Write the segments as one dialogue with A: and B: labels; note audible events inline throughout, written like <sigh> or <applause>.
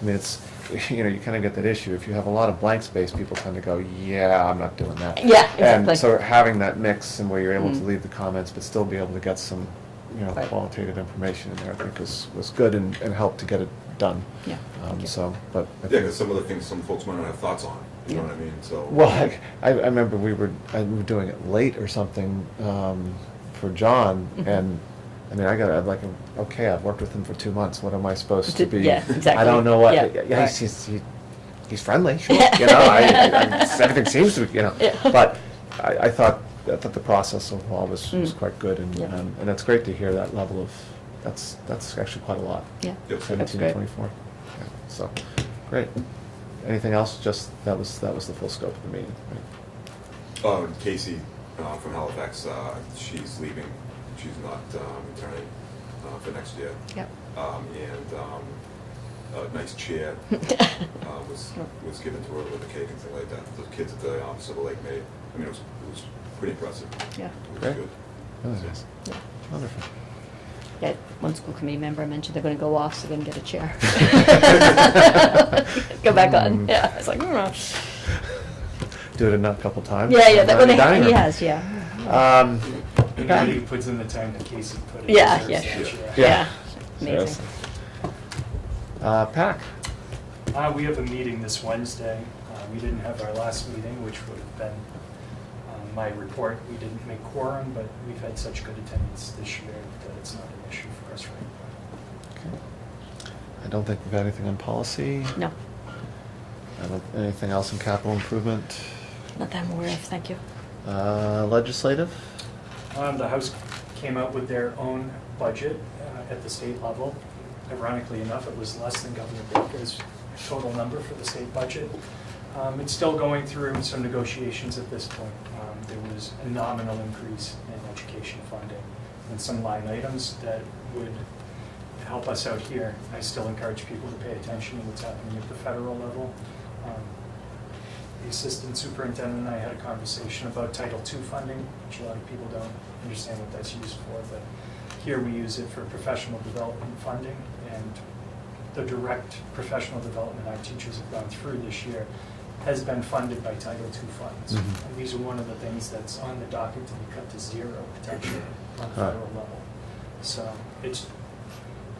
A: I mean, it's, <laughs> you know, you kind of get that issue. If you have a lot of blank space, people tend to go, yeah, I'm not doing that.
B: Yeah, exactly.
A: And so having that mix and where you're able to
B: Mm.
A: leave the comments, but still be able to get some, you know,
B: Right.
A: qualitative information in there, I think was, was good and, and helped to get it done.
B: Yeah, thank
A: Um,
B: you.
A: so, but. I
C: Yeah,
A: think-
C: because some of the things some folks might not have thoughts on, you know
B: Yeah.
C: what I mean, so.
A: Well, I, I I remember we were, I, we were doing it late or something um, for John,
B: Mhm.
A: and I mean, I got, I'm like, okay, I've worked with him for two months. What am I supposed to
B: To-
A: be?
B: yeah,
A: I
B: exactly.
A: don't know what.
B: Yeah,
A: Yeah,
B: right.
A: he's, he's, he, he's
B: <laughs>
A: friendly, sure. you know, I, I, I, everything seems to, be, you know.
B: Yeah.
A: But I, I thought I thought the process overall was, was
B: Mm.
A: quite good, and, um,
B: Yeah.
A: and and it's great to hear that level of. That's that's actually quite a lot.
B: Yeah,
C: Yes.
B: that's
A: Seventeen to
B: great.
A: twenty-four. Yeah, So, great. Anything else? Just, that was, that was the full scope of the meeting. right?
C: Um, Casey, uh, from Halifax, uh, she's leaving, she's not, um, returning, uh, for next year.
B: Yep.
C: Um, and, um, a nice chair, uh, was, was given to her with a cake and things like that. The kids at the Office of the Lake made, I mean, it was, it was pretty impressive.
B: Yeah.
C: It was
A: Great.
C: good.
A: Really nice.
B: Yeah.
A: Wonderful.
B: <laughs> Yeah, one school committee member mentioned they're gonna go off, so they're gonna get a chair. Go back on,
A: Mm.
B: yeah, I was like, mm.
A: Do it a couple times.
B: yeah, yeah, that
A: Around
B: one,
A: the dining
B: he
A: room.
B: has, yeah.
A: Um,
D: Anybody who puts in the time that Casey put in.
B: Yeah,
D: deserves
B: yeah.
C: Yeah.
D: that chair.
B: Yeah,
A: yeah.
B: amazing.
A: Seriously. Uh, PAC,
D: Uh, we have a meeting this Wednesday. Uh, we didn't have our last meeting, which would have been um, my report. We didn't make quorum, but we've had such good attendance this year that it's not an issue for us right now.
A: Okay. I don't think we've got anything on policy.
B: No,
A: I don't, anything else in capital improvement?
B: not that I'm aware of, thank you.
A: Uh, legislative?
D: Um, the House came out with their own budget uh, at the state level. Ironically enough, it was less than Governor Baker's total number for the state budget. Um, it's still going through some negotiations at this point. Um, there was a nominal increase in education funding and some line items that would help us out here. I still encourage people to pay attention to what's happening at the federal level. Um, the assistant superintendent and I had a conversation about Title II funding, which a lot of people don't understand what that's used for, but here we use it for professional development funding, and the direct professional development our teachers have gone through this year has been funded by Title II funds.
A: Mhm.
D: And these are one of the things that's on the docket to be cut to zero potentially on the
A: Huh.
D: federal level. So it's,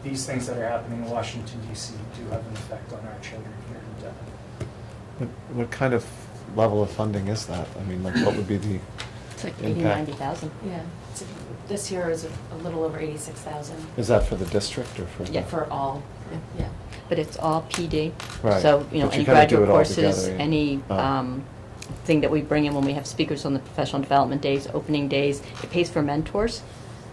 D: these things that are happening in Washington DC do have an effect on our children here in Devon.
A: What, what kind of level of funding is that? I mean, like, what would be the?
B: It's like
A: Impact.
B: eighty, ninety thousand.
E: Yeah, it's a- this year is a a little over 86,000.
A: Is that for the district or for? the-
B: Yeah,
E: For all, yeah.
B: But it's all PD.
A: Right.
B: So, you know,
A: But you kinda do
B: any graduate
A: it all
B: courses,
A: together, yeah.
B: any
A: Oh.
B: um, thing that we bring in when we have speakers on the professional development days, opening days, it pays for mentors,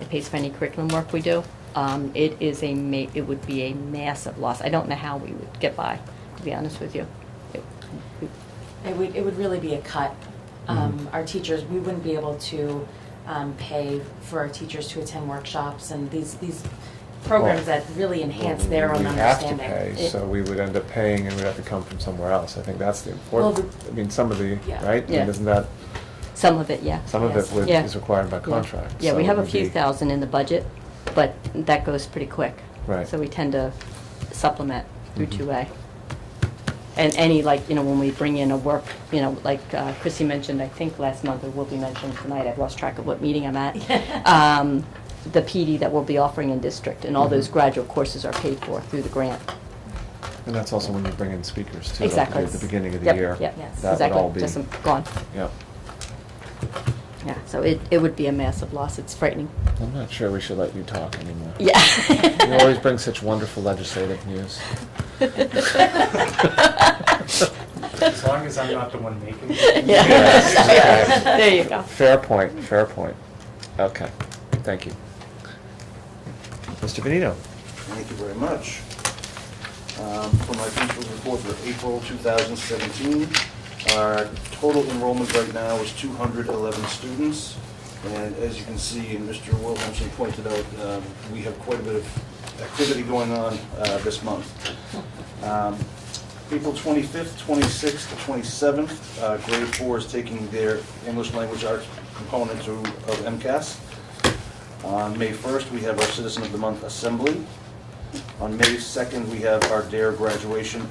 B: it pays for any curriculum work we do. Um, It is a ma, it would be a massive loss. I don't know how we would get by, to be honest with you. It- we-
E: It would, it would really be a cut. Um,
A: Mhm.
E: Our teachers, we wouldn't be able to um, pay for our teachers to attend workshops and these, these programs
A: Well,
E: that really enhance
A: Well,
E: their own
A: we
E: understanding.
A: have to pay,
B: It-
A: so we would end up paying, and we'd have to come from somewhere else. I think that's the
E: Well,
A: important.
E: the-
A: I mean, some of the
E: Yeah.
A: right. I mean,
B: Yeah.
A: isn't that
B: Some of it, yeah.
A: some of it
E: Yes.
A: would,
B: Yeah.
A: is required by
B: Yeah.
A: contract?
B: Yeah,
A: so
B: we
A: it
B: have a
A: would
B: few
A: be-
B: thousand in the budget, but that goes pretty quick.
A: Right.
B: So we tend to supplement through
A: Mhm.
B: two A. And any, like, you know, when we bring in a work, you know, like uh, Chrissy mentioned, I think last month, or will be mentioned tonight, I've lost track of what meeting I'm at. um, The PD that we'll be offering in district, and all those
A: Mhm.
B: graduate courses are paid for through the grant.
A: And that's also when you bring in speakers too. like
B: Exactly.
A: At the beginning of the
B: Yep,
A: year.
B: yep,
E: Yes.
A: That would all
B: exactly,
A: be.
B: just some- gone.
A: Yep.
B: Yeah, so it, it would be a massive loss, it's frightening.
A: I'm not sure we should let you talk anymore.
B: Yeah. <laughs>
A: You always bring such wonderful legislative news.
D: As long as I'm not the one making
A: <laughs>
D: it.
B: Yeah.
A: Yes, okay.
B: There you go.
A: Fair point, fair point. Okay, thank you. Mr. Benito?
F: Thank you very much. Um, For my principal's report for April 2017, our total enrollment right now is 211 students. And as you can see, and Mr. Williamson pointed out, um, we have quite a bit of activity going on uh, this month. Um, April 25th, 26th, to 27th, uh, grade four is taking their English language arts component to- of MCAS. On May 1st, we have our Citizen of the Month Assembly. On May 2nd, we have our DARE graduation